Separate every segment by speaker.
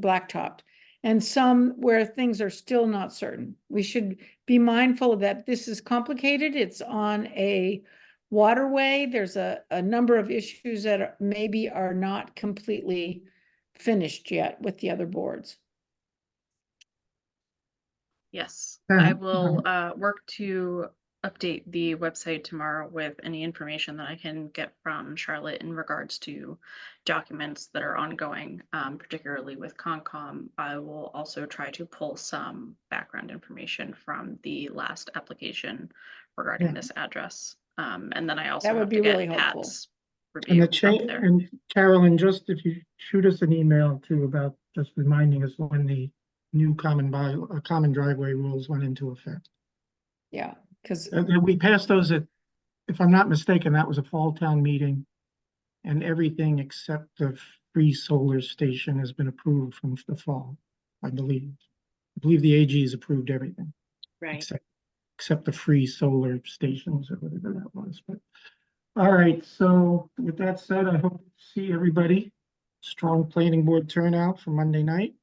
Speaker 1: blacktopped. And some where things are still not certain. We should be mindful of that. This is complicated. It's on a waterway. There's a, a number of issues that are- maybe are not completely finished yet with the other boards.
Speaker 2: Yes,
Speaker 3: Okay,
Speaker 2: I will uh, work to update the website tomorrow with any information that I can get from Charlotte in regards to documents that are ongoing, um, particularly with Concom. I will also try to pull some background information from the last application regarding
Speaker 3: Yeah.
Speaker 2: this address. Um, And then I also
Speaker 1: would
Speaker 2: have
Speaker 1: be
Speaker 2: to
Speaker 1: really
Speaker 2: get
Speaker 1: helpful.
Speaker 2: Pat's
Speaker 3: And
Speaker 2: review
Speaker 3: the
Speaker 2: up
Speaker 3: change,
Speaker 2: there.
Speaker 3: and Carolyn, just if you shoot us an email too about just reminding us when the new common by, uh, common driveway rules went into effect.
Speaker 1: Yeah, because
Speaker 3: And then we passed those at, if I'm not mistaken, that was a fall town meeting. And everything except the free solar station has been approved from the fall, I believe. I believe the AG has approved everything.
Speaker 2: Right.
Speaker 3: Except, except the free solar stations or whatever that was, but. All right, so with that said, I hope to see everybody. Strong planning board turnout for Monday night.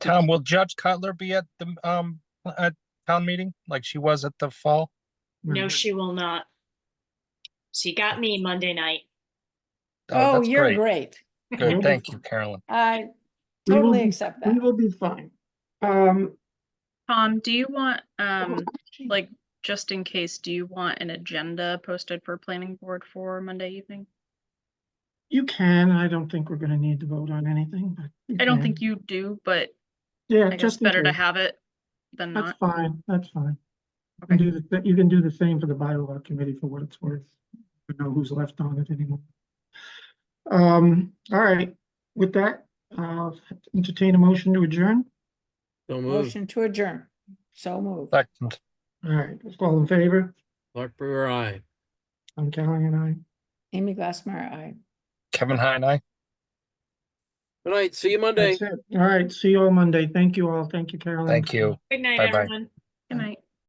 Speaker 4: Tom, will Judge Cutler be at the um at town meeting like she was at the fall?
Speaker 3: Mm-hmm.
Speaker 5: No, she will not. She got me Monday night.
Speaker 1: Oh,
Speaker 4: that's
Speaker 1: you're
Speaker 4: great.
Speaker 1: great.
Speaker 4: Good, thank you, Carolyn.
Speaker 1: I
Speaker 3: We will
Speaker 1: totally
Speaker 3: be-
Speaker 1: accept that.
Speaker 3: We will be fine. Um.
Speaker 2: Tom, do you want, um,
Speaker 1: Oh.
Speaker 3: actually,
Speaker 2: like, just in case, do you want an agenda posted for planning board for Monday evening?
Speaker 3: You can, I don't think we're gonna need to vote on anything, but. you
Speaker 2: I don't
Speaker 3: can.
Speaker 2: think you do, but
Speaker 3: Yeah,
Speaker 2: I guess
Speaker 3: just in
Speaker 2: better to
Speaker 3: case.
Speaker 2: have it than
Speaker 3: That's
Speaker 2: not.
Speaker 3: fine, that's fine. You can
Speaker 2: Okay.
Speaker 3: do the, you can do the same for the bylaw committee for what it's worth. I don't know who's left on it anymore. Um, all right, with that, uh, entertain a motion to adjourn.
Speaker 6: So moved.
Speaker 1: Motion to adjourn. So moved.
Speaker 4: Second,
Speaker 3: All right, all in favor?
Speaker 6: Clark Brewer, aye.
Speaker 3: I'm Callahan, and I.
Speaker 1: Amy Glassmeyer, aye.
Speaker 4: Kevin Hine, aye.
Speaker 6: Good night. See you Monday.
Speaker 3: That's it. All right, see you all Monday. Thank you all. Thank you, Carolyn.
Speaker 4: Thank you.
Speaker 5: Good night,
Speaker 4: Bye-bye.
Speaker 5: everyone.